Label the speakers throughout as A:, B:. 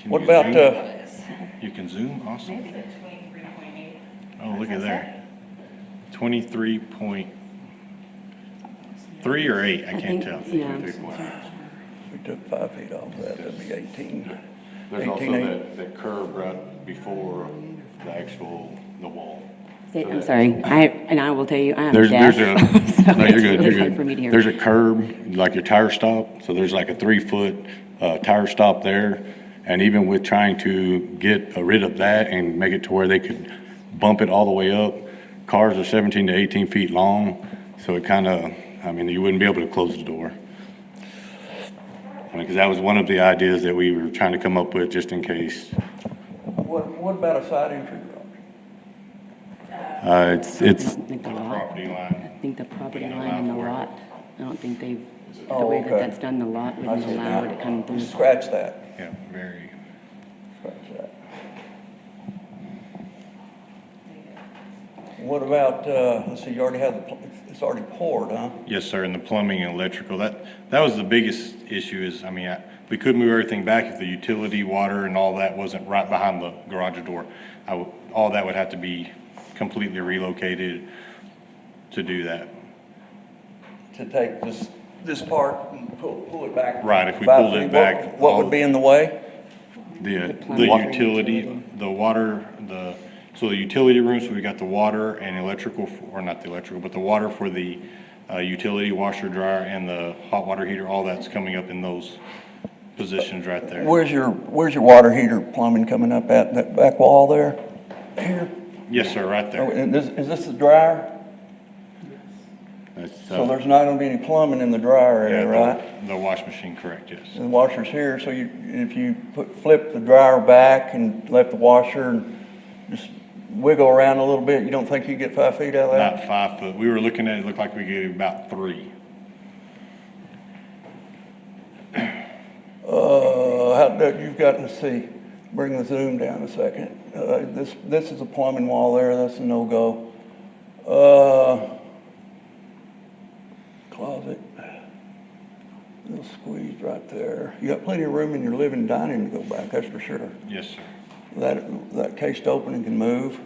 A: Can
B: What
A: you
B: about,
A: zoom?
B: uh,
A: You can zoom, awesome.
C: Maybe. Between three point eight.
A: Oh, look at there. Twenty-three point, three or eight, I can't tell.
D: Yeah.
B: uh, we took five feet off that, that'd be eighteen.
E: There's also
B: 18A.
E: that, that curb right before the actual, the wall.
D: I'm sorry, I, and I will tell you, I am
E: There's,
D: deaf.
E: there's a,
D: so
E: no,
D: it's
E: you're good,
D: really
E: you're
D: hard For me to
E: good.
D: hear.
E: There's a curb, like your tire stop, so there's like a three-foot, uh, tire stop there. And even with trying to get rid of that and make it to where they could bump it all the way up, cars are seventeen to eighteen feet long, so it kinda, I mean, you wouldn't be able to close the door. I mean, cause that was one of the ideas that we were trying to come up with, just in case.
B: What, what about a side entry, Roger?
E: Uh, it's, it's,
D: I think the lot- I
E: line.
D: think the property
E: Wouldn't
D: line and the
E: allow for it.
D: lot, I don't think they, the
B: Oh,
D: way that
B: okay.
D: that's done, the lot
B: I
D: wouldn't
B: said,
D: allow it to come
B: nah,
D: through.
B: Scratch that,
E: Yeah, very.
B: scratch that. What about, uh, let's see, you already have the, pl- it's already poured, huh?
E: Yes, sir, and the plumbing and electrical, that, that was the biggest issue is, I mean, I- we could move everything back if the utility, water and all that wasn't right behind the garage door. I would, all that would have to be completely relocated to do that.
B: To take this, this part and pull, pull it back.
E: Right, if we
B: five
E: pulled
B: feet,
E: it
B: what-
E: back,
B: What
E: all-
B: would be in the way?
E: The, the
D: plumbing.
E: utility, the water, the, so the utility room, so we got the water and electrical, f- or not the electrical, but the water for the, uh, utility washer dryer and the hot water heater, all that's coming up in those positions right there.
B: Where's your, where's your water heater plumbing coming up at, that back wall there? Here?
E: Yes, sir, right
B: Oh,
E: there.
B: and this, is this the dryer?
E: That's,
B: So
E: uh,
B: there's not gonna be any plumbing in the dryer
E: yeah,
B: area,
E: the-
B: right?
E: The wash machine, correct, yes.
B: The washer's here, so you, if you put, flip the dryer back and let the washer and just wiggle around a little bit, you don't think you get five feet out of that?
E: Not five foot. We were looking at, it looked like we could get about three.
B: Uh, how, that- you've got, let's see, bring the zoom down a second. Uh, this, this is a plumbing wall there, that's a no-go. Uh, closet, little squeeze right there. You got plenty of room in your living dining to go back, that's for sure.
E: Yes, sir.
B: That, that cased opening can move.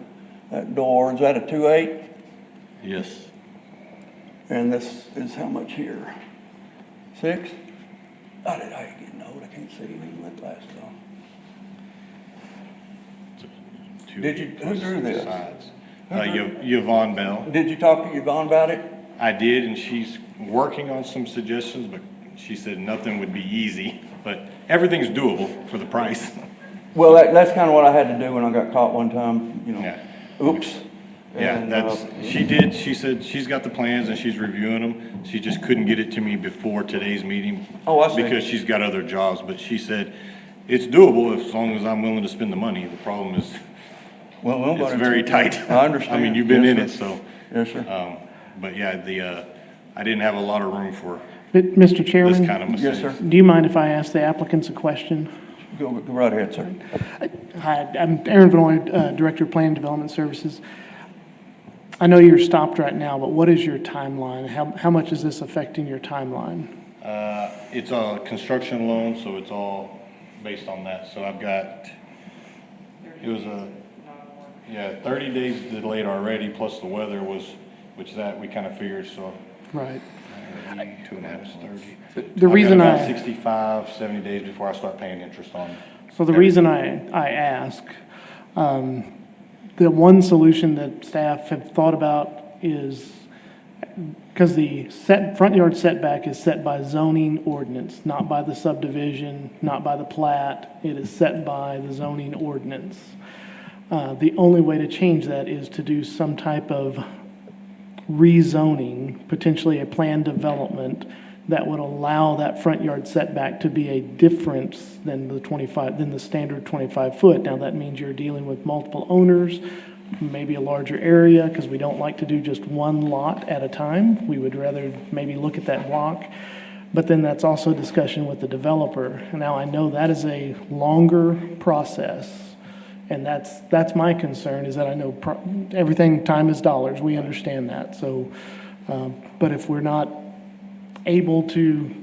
B: That door, is that a two eight?
E: Yes.
B: And this is how much here? Six? I did, I ain't getting old, I can't see even with glasses on. Did you- who drew this? Who
E: Uh,
B: drew-
E: Yo- Yvonne Bell.
B: Did you talk to Yvonne about it?
E: I did, and she's working on some suggestions, but she said nothing would be easy, but everything's doable for the price.
B: Well, that, that's kinda what I had to do when I got caught one time, you know,
E: Yeah.
B: oops.
E: Yeah,
B: And,
E: that's,
B: uh,
E: she did, she said she's got the plans and she's reviewing them. She just couldn't get it to me before today's meeting.
B: Oh, I see.
E: Because she's got other jobs, but she said it's doable if- as long as I'm willing to spend the money. The problem is,
B: Well, we'll go
E: it's
B: to-
E: very tight.
B: I understand.
E: I mean, you've been
B: Yes,
E: in it,
B: sir.
E: so,
B: Yes, sir.
E: um, but yeah, the, uh, I didn't have a lot of room for
F: But, Mr.
E: this
F: Chairman,
E: kind of
B: Yes,
E: mistake.
B: sir.
F: do you mind if I ask the applicants a question?
B: Go, go right ahead, sir.
F: Hi, I'm Aaron Vanoy, uh, Director of Plan and Development Services. I know you're stopped right now, but what is your timeline? How, how much is this affecting your timeline?
E: Uh, it's a construction loan, so it's all based on that. So I've got, it was a, yeah, thirty days delayed already, plus the weather was, which that we kind of figured, so.
F: Right.
E: Two and a half is thirty.
F: The reason
E: I've got about
F: I-
E: Sixty-five, seventy days before I start paying interest on.
F: So the reason I, I ask, um, the one solution that staff have thought about is, because the set, front yard setback is set by zoning ordinance, not by the subdivision, not by the plat. It is set by the zoning ordinance. Uh, the only way to change that is to do some type of rezoning, potentially a planned development that would allow that front yard setback to be a difference than the 25, than the standard 25-foot. Now, that means you're dealing with multiple owners, maybe a larger area, because we don't like to do just one lot at a time. We would rather maybe look at that block. But then that's also discussion with the developer. And Now, I know that is a longer process. And that's, that's my concern, is that I know pro- everything, time is uh, dollars, we understand that, so, um, but if we're not able to